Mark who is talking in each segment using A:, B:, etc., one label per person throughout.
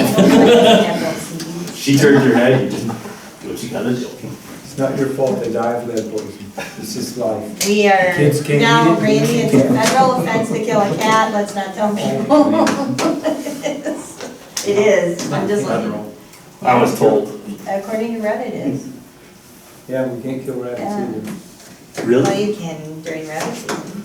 A: wife. She turned her head, you just do what you gotta do.
B: It's not your fault they die of lead poisoning. It's just life.
C: We are,
B: Kids can't
C: no,
B: eat it.
C: Randy, it's a federal offense to kill a cat, let's not tell people. It is, I'm just looking.
A: I was told.
C: According to Reddit, it is.
B: Yeah, we can't kill rabbits
C: Yeah.
B: either.
C: Well,
A: Really?
C: you can during rabbit season.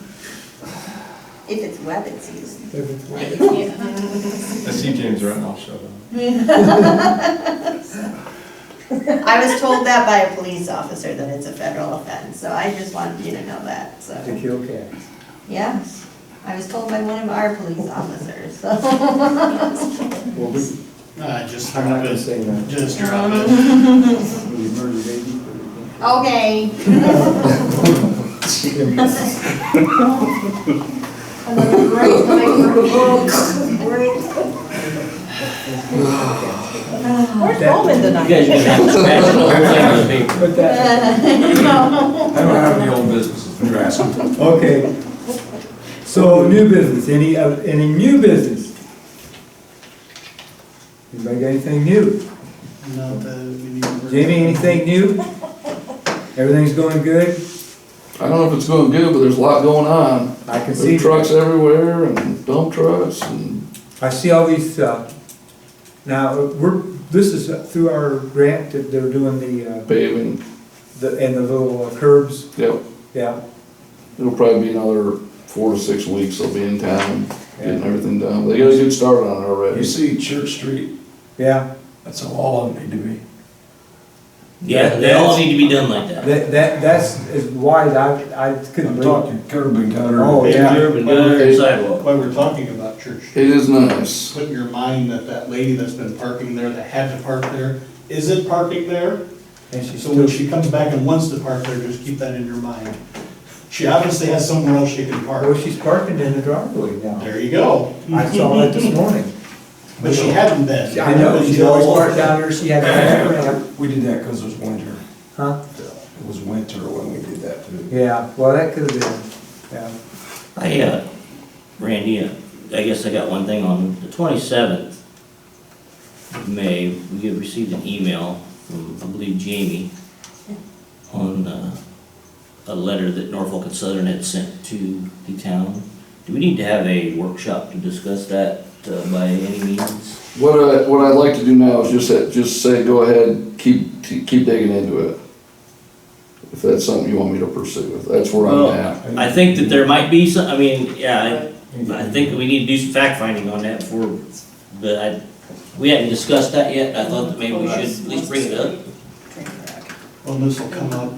C: If it's rabbit season.
B: If it's worth it.
D: I see James Ratnoff showed up.
C: I was told that by a police officer that it's a federal offense, so I just wanted you to know that,
B: To
C: so.
B: kill cats.
C: Yes, I was told by one of our police officers, so.
B: Well, we,
E: Uh, just
B: I'm not
E: drop
B: gonna
E: it,
B: say that.
E: just drop it.
B: We murder baby. but we can't-
C: Okay. Another great night. Where's Roman
A: You guys are gonna have to smash the whole thing on the paper.
B: Put that,
F: I don't have any old businesses, you're asking.
B: okay. So new business, any, uh, any new business? Anybody got anything new?
E: Not that we need to-
B: Jamie, anything new? Everything's going good?
F: I don't know if it's going good, but there's a lot going on.
B: I can see.
F: There's trucks everywhere and dump trucks and,
B: I see all these, uh, now, we're, this is through our grant that they're doing the, uh,
F: paving.
B: the, and the little uh, curbs,
F: Yep,
B: yeah.
F: it'll probably be another four to six weeks they'll be in town getting everything done. They got a good start on it
G: You
F: already.
G: see Church Street,
B: Yeah,
G: that's how all of them need to be.
A: Yeah, they all need to be done like that.
B: that, that, that's as wide, I, I couldn't
G: I'm
B: believe.
G: talking curb and gutter.
B: Oh, yeah.
A: Curb and gutter and sidewalk.
E: While we're talking about church,
F: It is nice.
E: put in your mind that that lady that's been parking there, that had to park there, isn't parking there.
B: And she's
E: So when
B: still,
E: she comes back and wants to park there, just keep that in your mind. She obviously has somewhere else she can
B: well,
E: park.
B: she's parking in the driveway now.
E: There you go.
B: I saw that this morning.
E: But she hadn't been.
B: I know, she's always parked down there, she had a ramp.
G: We did that because it was winter.
B: Huh?
G: It was winter when we did that too.
B: Yeah, well, that could have been, yeah.
A: I, uh, Randy, uh, I guess I got one thing on the twenty-seventh of May, we had received an email from, I believe, Jamie on, uh, a letter that Norfolk and Southern had sent to the town. Do we need to have a workshop to discuss that, uh, by any means?
F: What I, what I'd like to do now is just, say- just say, go ahead, keep, keep digging into it. If that's something you want me to pursue, that's where
A: Well,
F: I'm at.
A: I think that there might be some, I mean, yeah, I, I think that we need to do some fact finding on that before, but I, we hadn't discussed that yet, I thought that maybe we should at least bring it up.
E: Well, this will come up.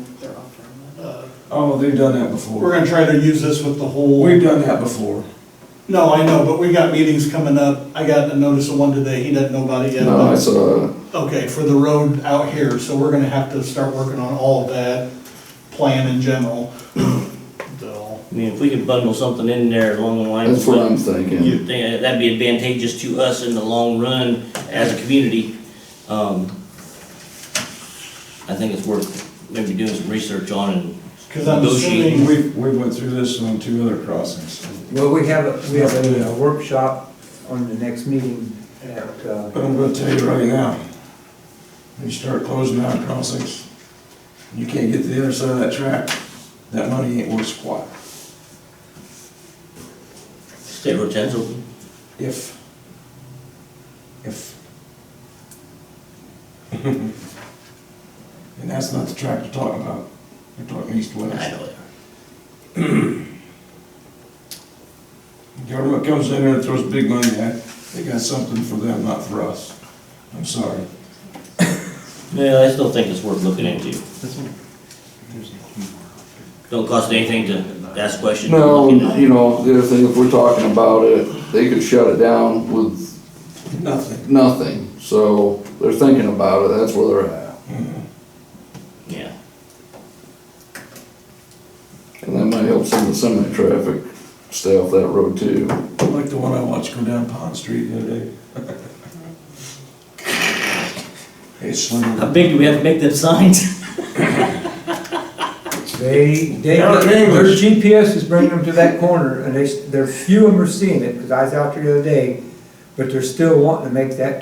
E: Uh,
G: Oh, they've done that
E: We're
G: before.
E: gonna try to use this with the whole.
G: We've done that before.
E: No, I know, but we got meetings coming up. I got a notice of one today, he doesn't know about it yet.
F: No, uh, I saw, it.
E: Okay, for the road out here, so we're gonna have to start working on all of that, plan in general. So,
A: I mean, if we could bundle something in there along the lines
F: that's
A: of
F: what
A: what
F: I'm thinking.
A: you think, uh, that'd be advantageous to us in the long run as a community. Um, I think it's worth maybe doing some research on and,
E: Cause I'm
A: Negotiating.
E: assuming,
G: We, we went through this on two other crossings.
B: Well, we have, a we have a uh, workshop on the next meeting at, uh,
G: But I'm gonna tell you right now, when you start closing down crossings, you can't get to the other side of that track, that money ain't worth squat.
A: state road ten's open.
G: If, if. And that's not the track you're talking about, you're talking
A: I
G: east-west.
A: know it.
G: Government comes in there and throws big money at, they got something for them, not for us. I'm sorry.
A: Yeah, I still think it's worth looking into. Don't cost anything to ask questions.
F: No, you know, the other thing, if we're talking about it, they could shut it down with
G: Nothing.
F: nothing. So they're thinking about it, that's where they're at.
A: Yeah,
F: And that might help some of the semi-traffic stay off that road too.
G: Like the one I watched go down Pond Street the other day. Hey, Slim.
A: how big do we have to make them signs?
B: They, they,
G: Eric
B: their
G: English.
B: GPS is bringing them to that corner, and they, they're few of them are seeing it, because I was out there the other day, but they're still wanting to make that